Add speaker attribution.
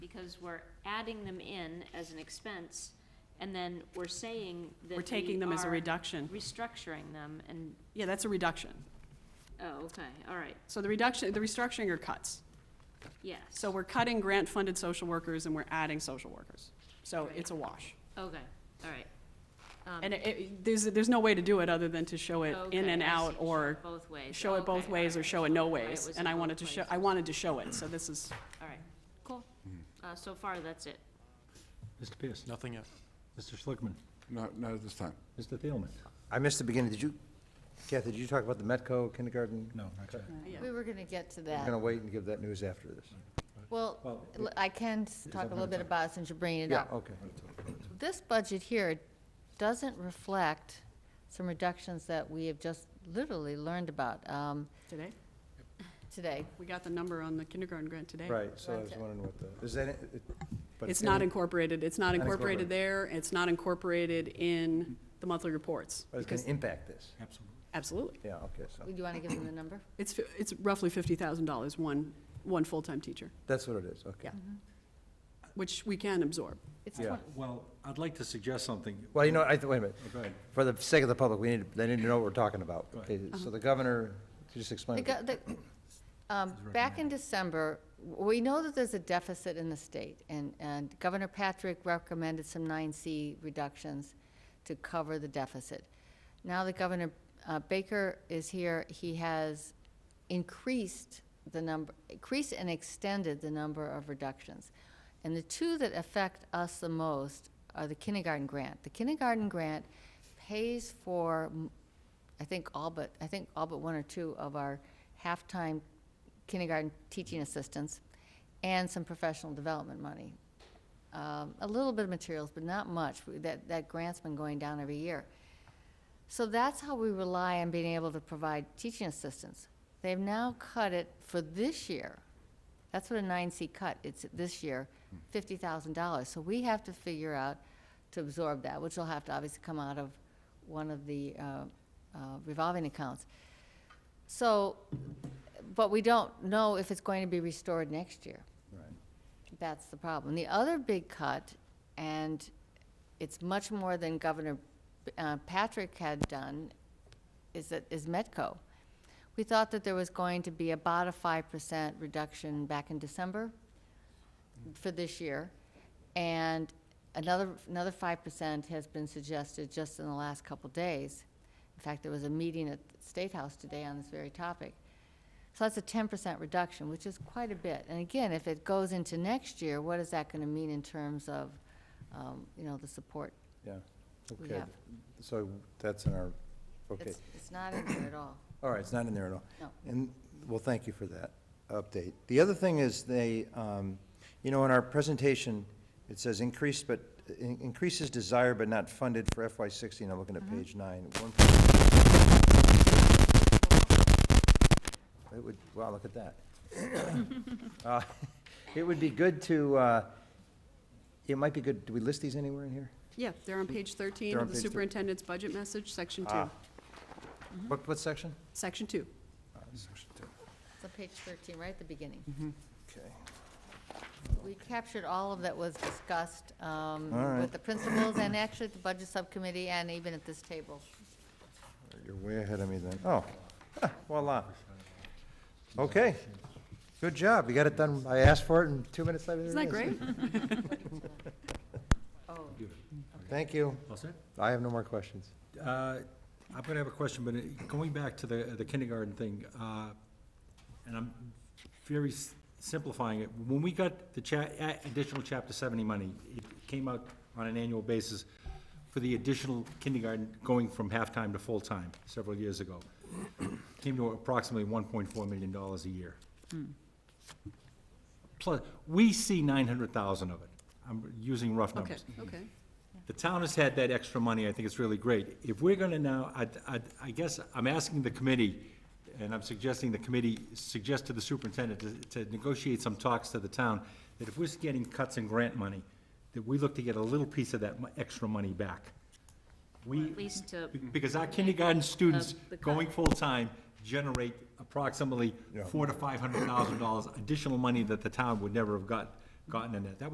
Speaker 1: because we're adding them in as an expense, and then we're saying that
Speaker 2: We're taking them as a
Speaker 1: we are
Speaker 2: reduction.
Speaker 1: Restructuring them, and,
Speaker 2: Yeah, that's a reduction.
Speaker 1: oh, okay, all right,
Speaker 2: So the reduction, the restructuring are cuts.
Speaker 1: yes.
Speaker 2: So we're cutting grant-funded social workers and we're adding social workers. So
Speaker 1: Right.
Speaker 2: it's a wash.
Speaker 1: Okay, all right. Um,
Speaker 2: And it- it, there's, there's no way to do it other than to show it in
Speaker 1: okay,
Speaker 2: and
Speaker 1: I
Speaker 2: out
Speaker 1: see.
Speaker 2: or
Speaker 1: Both ways.
Speaker 2: show it
Speaker 1: Okay,
Speaker 2: both
Speaker 1: all
Speaker 2: ways or
Speaker 1: right.
Speaker 2: show it no
Speaker 1: Right, it
Speaker 2: ways.
Speaker 1: was
Speaker 2: And
Speaker 1: in
Speaker 2: I
Speaker 1: both
Speaker 2: wanted to show,
Speaker 1: ways.
Speaker 2: I wanted to show it, so this is,
Speaker 1: All right, cool. Uh, so far, that's it.
Speaker 3: Mr. Pierce.
Speaker 4: Nothing else.
Speaker 3: Mr. Schlickman.
Speaker 5: Not, not at this time.
Speaker 3: Mr. Thielman.
Speaker 6: I missed the beginning. Did you, Kathy, did you talk about the Metco kindergarten?
Speaker 3: No, not yet.
Speaker 2: yeah.
Speaker 7: We were going to get to
Speaker 6: We're
Speaker 7: that.
Speaker 6: going to wait and give that news after this.
Speaker 7: Well,
Speaker 3: Well,
Speaker 7: l- I can s-
Speaker 3: Is
Speaker 7: talk
Speaker 3: that
Speaker 7: a little
Speaker 3: better?
Speaker 7: bit about, it since you're bringing it
Speaker 6: Yeah,
Speaker 7: up.
Speaker 6: okay.
Speaker 7: This budget here doesn't reflect some reductions that we have just literally learned about um,
Speaker 2: Today?
Speaker 7: today.
Speaker 2: We got the number on the kindergarten grant today.
Speaker 6: Right, so I was wondering what the, is that, it- it- but
Speaker 2: It's not
Speaker 6: any-
Speaker 2: incorporated, it's not
Speaker 6: Not
Speaker 2: incorporated
Speaker 6: incorporated.
Speaker 2: there, it's not incorporated in the monthly reports.
Speaker 6: But it's going
Speaker 2: because-
Speaker 6: to impact this.
Speaker 3: Absolutely.
Speaker 2: Absolutely.
Speaker 6: Yeah, okay, so
Speaker 7: Do you want to give them the number?
Speaker 2: It's, fi- it's roughly fifty thousand dollars, one, one full-time teacher,
Speaker 6: that's what it is, okay.
Speaker 2: Yeah. which we can absorb.
Speaker 7: It's
Speaker 6: Yeah.
Speaker 7: twen-
Speaker 3: Well, I'd like to suggest something.
Speaker 6: Well, you know, I, th- wait a minute.
Speaker 3: Oh, Go ahead.
Speaker 6: For the sake of the public, we need, they need to know what we're talking about.
Speaker 3: Go
Speaker 6: Okay,
Speaker 3: ahead.
Speaker 6: so the governor, just
Speaker 7: Uh-huh. the
Speaker 6: explain.
Speaker 7: go- the- um, Back in December, w- we know that there's a deficit in the state, and, and Governor Patrick recommended some 9C reductions to cover the deficit. Now that Governor uh, Baker is here, he has increased the number, increased and extended the number of reductions. And the two that affect us the most are the kindergarten grant. The kindergarten grant pays for, m- I think all but, I think all but one or two of our half-time kindergarten teaching assistants and some professional development money. Um, a little bit of materials, but not much. We- That, that grant's been going down every year. So that's how we rely on being able to provide teaching assistance. They've now cut it for this year. That's what a nine C cut, it's this year, fifty thousand dollars. So we have to figure out to absorb that, which will have to obviously come out of one of the uh, uh, revolving accounts. So, but we don't know if it's going to be restored next year. That's the problem. The other big cut, and it's much more than Governor uh, Patrick had done, is that, is Metco. We thought that there was going to be about a five percent reduction back in December for this year, and another, another five percent has been suggested just in the last couple days. In fact, there was a meeting at the State House today on this very topic. So that's a ten percent reduction, which is quite a bit. And again, if it goes into next year, what is that gonna mean in terms of, um, you know, the support?
Speaker 6: Yeah,
Speaker 7: We
Speaker 6: okay.
Speaker 7: have-
Speaker 6: So that's in our, okay.
Speaker 7: It's, it's not in there at all.
Speaker 6: All right, it's not in there at all.
Speaker 7: No.
Speaker 6: And, well, thank you for that update. The other thing is they, um, you know, in our presentation, it says increased, but, in- increases desired but not funded for FY sixteen, I'm looking at page nine. One It would, wow, look at that. Uh, It would be good to, uh, it might be good, do we list these anywhere in here?
Speaker 2: Yeah, they're on page thirteen
Speaker 6: They're on
Speaker 2: of the
Speaker 6: page thir-
Speaker 2: superintendent's budget message, section two,
Speaker 6: Ah. What, what section?
Speaker 2: section two.
Speaker 7: It's on page thirteen, right at the beginning.
Speaker 6: Okay.
Speaker 7: We captured all of that was discussed um,
Speaker 6: Mm-hmm. All right.
Speaker 7: with the principals and actually at the budget subcommittee and even at this table.
Speaker 6: You're way ahead of me then. Oh, voila. Okay. Good job. You got it done. I asked for it and two minutes later.
Speaker 2: Isn't
Speaker 6: there
Speaker 2: that
Speaker 6: it
Speaker 2: great?
Speaker 7: Oh,
Speaker 6: Thank you.
Speaker 3: All set?
Speaker 6: I have no more questions.
Speaker 3: Uh, I'm going to have a question, but it- going back to the the kindergarten thing, uh, and I'm very s- simplifying it. When we got the cha- a- additional Chapter 70 money, it came out on an annual basis for the additional kindergarten going from half-time to full-time several years ago. Came to approximately $1.4 million a year. Plus, we see 900,000 of it. I'm using rough
Speaker 2: Okay,
Speaker 3: numbers.
Speaker 2: okay.
Speaker 3: The town has had that extra money, I think it's really great. If we're gonna now, I, I, I guess I'm asking the committee, and I'm suggesting the committee suggest to the superintendent to, to negotiate some talks to the town, that if we're getting cuts in grant money, that we look to get a little piece of that mo- extra money back.
Speaker 1: Or
Speaker 3: We,
Speaker 1: At least to,
Speaker 3: because our kindergarten students
Speaker 1: the cut.
Speaker 3: going full-time generate approximately four to five hundred thousand dollars additional money that the town would never have got, gotten in that. That